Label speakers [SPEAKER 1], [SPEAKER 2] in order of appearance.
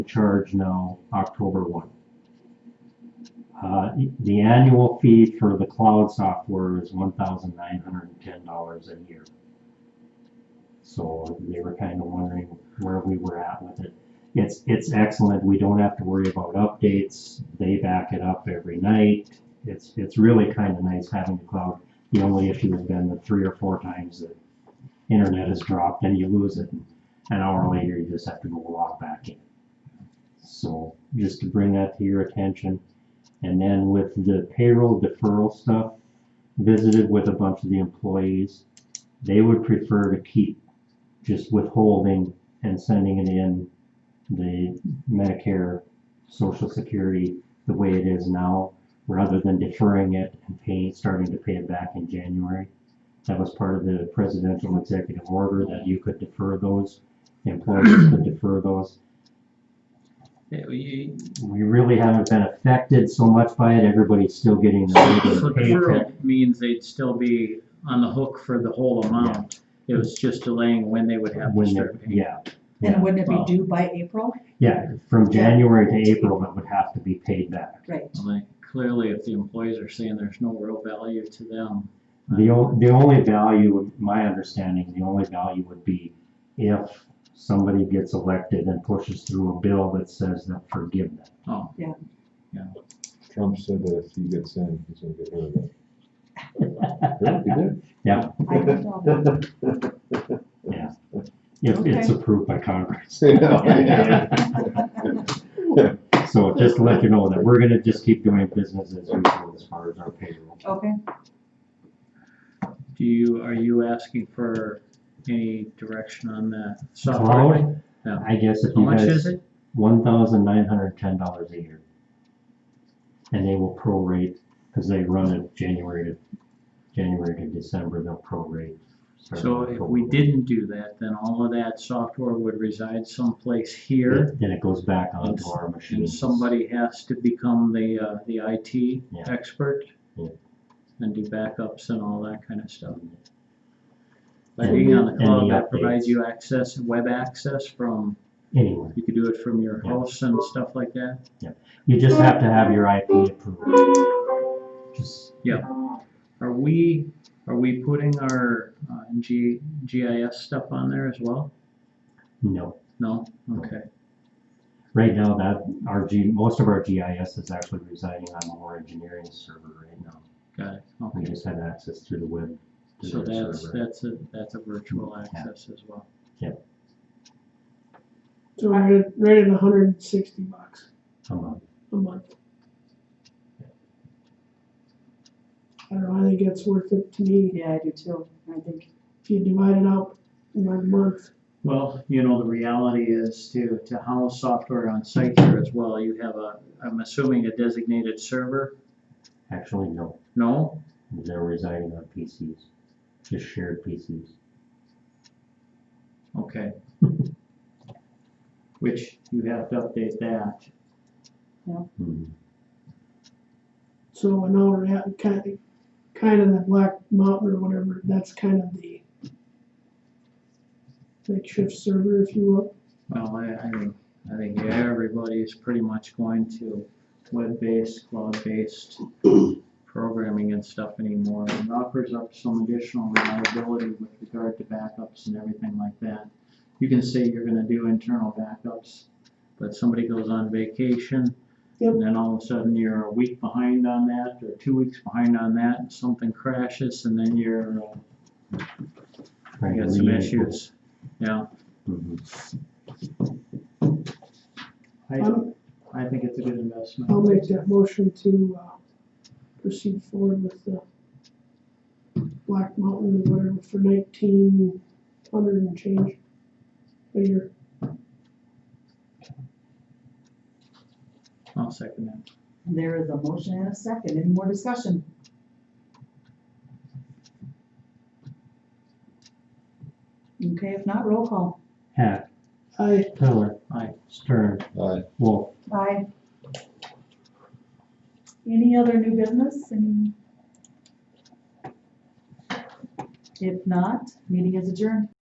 [SPEAKER 1] charge now October 1. Uh, The annual fee for the cloud software is $1,910 a year. So they were kind of wondering where we were at with it. It's, it's excellent. We don't have to worry about updates. They back it up every night. It's, it's really kind of nice having the cloud. The only issue has been the three or four times the internet has dropped and you lose it. An hour later, you just have to go log back in. So just to bring that to your attention. And then with the payroll deferral stuff, visited with a bunch of the employees. They would prefer to keep just withholding and sending it in the Medicare, Social Security, the way it is now, rather than deferring it and paying, starting to pay it back in January. That was part of the presidential executive order that you could defer those, employers could defer those
[SPEAKER 2] Yeah, well, you-
[SPEAKER 1] we really haven't been affected so much by it. Everybody's still getting the
[SPEAKER 2] So
[SPEAKER 1] regular paycheck.
[SPEAKER 2] deferral means they'd still be on the hook for the whole amount. It was just delaying when they would have to
[SPEAKER 1] When they,
[SPEAKER 2] start paying.
[SPEAKER 1] yeah,
[SPEAKER 3] And
[SPEAKER 1] yeah,
[SPEAKER 3] wouldn't it
[SPEAKER 2] Wow.
[SPEAKER 3] be due by April?
[SPEAKER 1] yeah. From January to April, it would have to be paid back.
[SPEAKER 3] Right.
[SPEAKER 2] Like, clearly, if the employees are saying there's no real value to them. um,
[SPEAKER 1] The o- the only value, my understanding, the only value would be if somebody gets elected and pushes through a bill that says that forgive them.
[SPEAKER 2] Oh,
[SPEAKER 4] Trump said that if he gets in, he's gonna get rid of it. Really? He did?
[SPEAKER 3] I don't know.
[SPEAKER 1] If it's
[SPEAKER 3] Okay.
[SPEAKER 1] approved by Congress.
[SPEAKER 4] Yeah.
[SPEAKER 1] So just to let you know that we're gonna just keep doing business as usual as far as our payroll.
[SPEAKER 3] Okay,
[SPEAKER 2] do you, are you asking for any direction on that software?
[SPEAKER 1] Cloud,
[SPEAKER 2] Yeah.
[SPEAKER 1] I guess if
[SPEAKER 2] How
[SPEAKER 1] you
[SPEAKER 2] much is
[SPEAKER 1] guys
[SPEAKER 2] it?
[SPEAKER 1] one thousand nine hundred ten dollars a year. And they will prorate, because they run it January to, January to December, they'll prorate. starting
[SPEAKER 2] So if we
[SPEAKER 1] October.
[SPEAKER 2] didn't do that, then all of that software would reside someplace here.
[SPEAKER 1] Then then it goes back onto our machine.
[SPEAKER 2] And somebody has to become the, uh, the IT
[SPEAKER 1] Yeah.
[SPEAKER 2] expert.
[SPEAKER 1] Yeah.
[SPEAKER 2] And do backups and all that kind of stuff. By
[SPEAKER 1] And-
[SPEAKER 2] being on the
[SPEAKER 1] and
[SPEAKER 2] cloud,
[SPEAKER 1] the
[SPEAKER 2] that provides
[SPEAKER 1] updates.
[SPEAKER 2] you access, web access from,
[SPEAKER 1] Anyway,
[SPEAKER 2] you could do it from your
[SPEAKER 1] Yeah.
[SPEAKER 2] house and stuff like that.
[SPEAKER 1] you just have to have your IP approved. Just,
[SPEAKER 2] Are we, are we putting our, uh, G, GIS stuff on there as well?
[SPEAKER 1] no,
[SPEAKER 2] No? Okay.
[SPEAKER 1] right now that, our G, most of our GIS is actually residing on our engineering server right now.
[SPEAKER 2] Got it.
[SPEAKER 1] We
[SPEAKER 2] Okay.
[SPEAKER 1] just have access through the web. to
[SPEAKER 2] So
[SPEAKER 1] their
[SPEAKER 2] that's,
[SPEAKER 1] server.
[SPEAKER 2] that's a, that's a virtual access as well.
[SPEAKER 5] So we're at, right at hundred and sixty bucks
[SPEAKER 1] Come on.
[SPEAKER 5] a month. I don't know, I think it's worth it to me,
[SPEAKER 3] yeah, I do too, I think.
[SPEAKER 5] if you divide it out by month,
[SPEAKER 2] Well, you know, the reality is to, to house software on site here as well, you have a, I'm assuming a designated server?
[SPEAKER 1] Actually, no.
[SPEAKER 2] No?
[SPEAKER 1] They're residing on PCs, just shared PCs.
[SPEAKER 2] Okay. Which you have to update that.
[SPEAKER 1] Hmm.
[SPEAKER 5] so now we're at kind of, kind of that Black Mountain or whatever, that's kind of the makeshift server, if you will,
[SPEAKER 2] Well, I, I think, I think everybody's pretty much going to web-based, cloud-based programming and stuff anymore. It offers up some additional reliability with regard to backups and everything like that. You can say you're gonna do internal backups, but somebody goes on vacation,
[SPEAKER 5] Yep.
[SPEAKER 2] and then all of a sudden you're a week behind on that, or two weeks behind on that, and something crashes, and then you're, uh,
[SPEAKER 1] Right,
[SPEAKER 2] you got some
[SPEAKER 1] we-
[SPEAKER 2] issues. Yeah,
[SPEAKER 1] Mhm.
[SPEAKER 2] I,
[SPEAKER 5] I'm,
[SPEAKER 2] I think it's a good investment.
[SPEAKER 5] Um, I'll make that motion to, uh, proceed forward with the Black Mountain or whatever for nineteen hundred and change a year.
[SPEAKER 2] I'll second that.
[SPEAKER 3] There is a motion and a second, any more discussion? Okay, if not, roll call.
[SPEAKER 1] Hack,
[SPEAKER 5] I,
[SPEAKER 1] Pillar.
[SPEAKER 2] Aye.
[SPEAKER 1] Stern,
[SPEAKER 4] Aye.
[SPEAKER 1] Wolf.
[SPEAKER 3] Aye. Any other new business? Any- If not, meeting is adjourned.